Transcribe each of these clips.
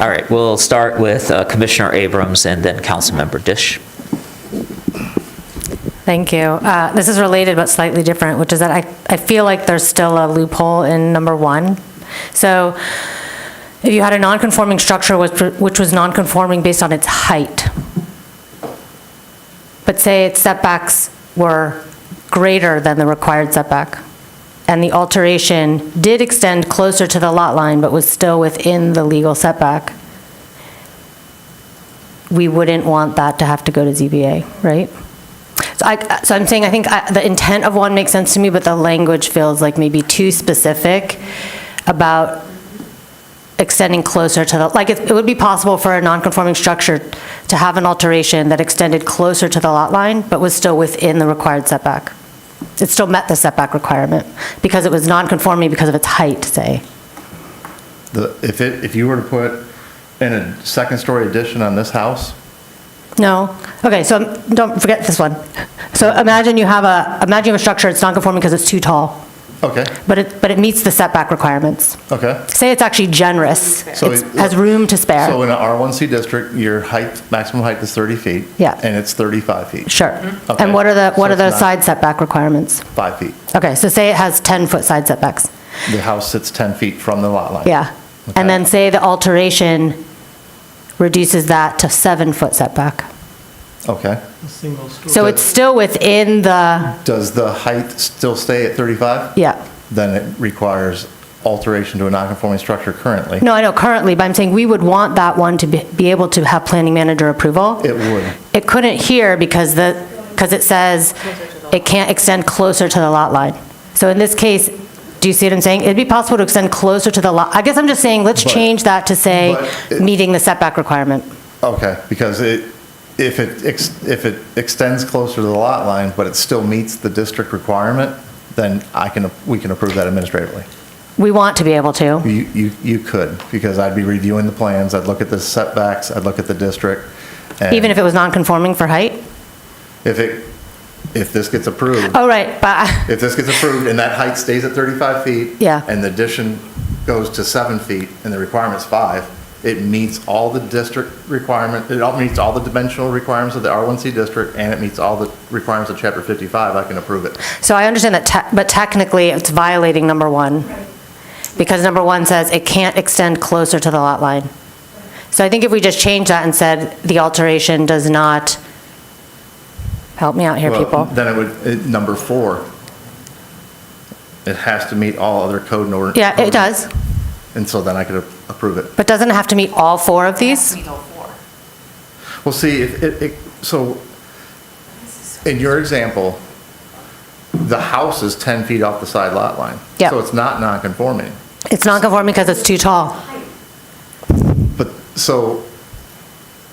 All right, we'll start with uh, Commissioner Abrams and then Councilmember Dish. Thank you. Uh, This is related but slightly different, which is that I, I feel like there's still a loophole in number one. So if you had a non-conforming structure which, which was non-conforming based on its height, but say its setbacks were greater than the required setback, and the alteration did extend closer to the lot line but was still within the legal setback, we wouldn't want that to have to go to ZBA, right? So I, so I'm saying, I think I- the intent of one makes sense to me, but the language feels like maybe too specific about extending closer to the, like, it it would be possible for a non-conforming structure to have an alteration that extended closer to the lot line, but was still within the required setback. It still met the setback requirement, because it was non-conforming because of its height, say. The, if it, if you were to put in a second-story addition on this house, No? Okay, so um, don't forget this one. So imagine you have a, imagine you have a structure, it's non-conforming because it's too tall, okay, but it, but it meets the setback requirements. okay. say it's actually generous, So It's- it- has room to So spare. in an R1C district, your height, maximum height is 30 feet. Yeah. And it's 35 feet, Sure. Okay. And what are the, what So are the it's not- side setback requirements? 5 feet. Okay, so say it has 10-foot side setbacks, The house sits 10 feet from the lot line. yeah. Okay. And then say the alteration reduces that to seven-foot setback. Okay. So it's still within the, Does the height still stay at 35? yeah. Then it requires alteration to a non-conforming structure currently. No, I know currently, but I'm saying we would want that one to be be able to have planning manager approval. It would. It couldn't here because the, because it says it can't extend closer to the lot line. So in this case, do you see what I'm saying? It'd be possible to extend closer to the lot, I guess I'm just saying, let's But- change that to say, but it- meeting the setback requirement. Okay, because it, if it, ex- if it extends closer to the lot line, but it still meets the district requirement, then I can, we can approve that administratively. We want to be able to. You, you, you could, because I'd be reviewing the plans, I'd look at the setbacks, I'd look at the district. and Even if it was non-conforming for height? If it, if this gets approved, Oh, right, but, if this gets approved and that height stays at 35 feet. Yeah. And the addition goes to seven feet and the requirement's five, it meets all the district requirement, it all meets all the dimensional requirements of the R1C district, and it meets all the requirements of chapter 55, I can approve it. so I understand that, te- but technically, it's violating number one. Because number one says it can't extend closer to the lot line. So I think if we just change that and said, the alteration does not, help me out here, Well, people. Then it would, it- number four, it has to meet all other code and ordinance. Yeah, it does, And so then I could a- approve it. but doesn't it have to meet all four of these? Well, see, if it, it, so, in your example, the house is 10 feet off the side lot line. Yeah. So it's not non-conforming. It's non-conforming because it's too tall. But, so,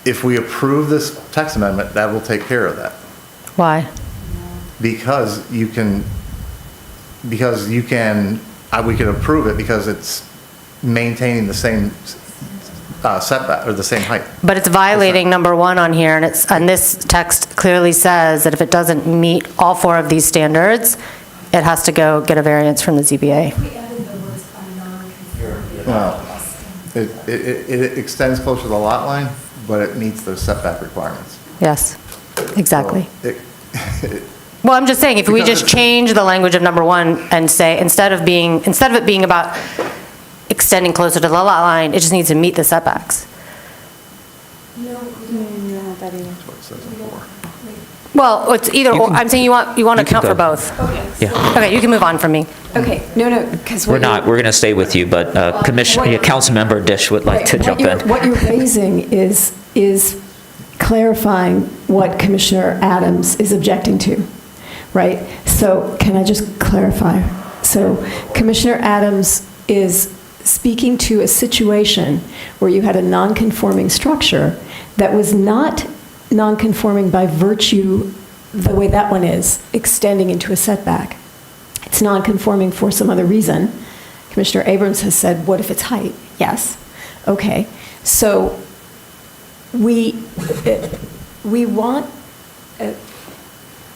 if we approve this text amendment, that will take care of that. Why? Because you can, because you can, I- we can approve it because it's maintaining the same uh, setback, or the same height. But it's violating number one on here, and it's, and this text clearly says that if it doesn't meet all four of these standards, it has to go get a variance from the ZBA. We added the words by non-conforming. Well, It, it, it extends closer to the lot line, but it meets those setback requirements. Yes, exactly. So it- Well, I'm just saying, if we Because just it's- change the language of number one and say, instead of being, instead of it being about extending closer to the lot line, it just needs to meet the setbacks. No, no, that either. That's what it says in four. Well, it's either, You or. can- I'm saying you want, you want to you can account for go. both. Yeah, Okay, you can move on from me. Okay, no, no, because. we're not, we're going to stay with you, but uh, Commissioner, yeah, Councilmember Dish would like to jump in. What you're raising is, is clarifying what Commissioner Adams is objecting to, right? So can I just clarify? So Commissioner Adams is speaking to a situation where you had a non-conforming structure that was not non-conforming by virtue, the way that one is, extending into a setback. it's non-conforming for some other reason. Commissioner Abrams has said, what if it's height? Yes. Okay. So we, eh, we want, eh,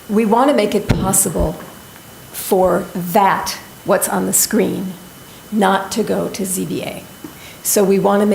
we want to make it possible for that, what's on the screen, not to go to ZBA. So we want to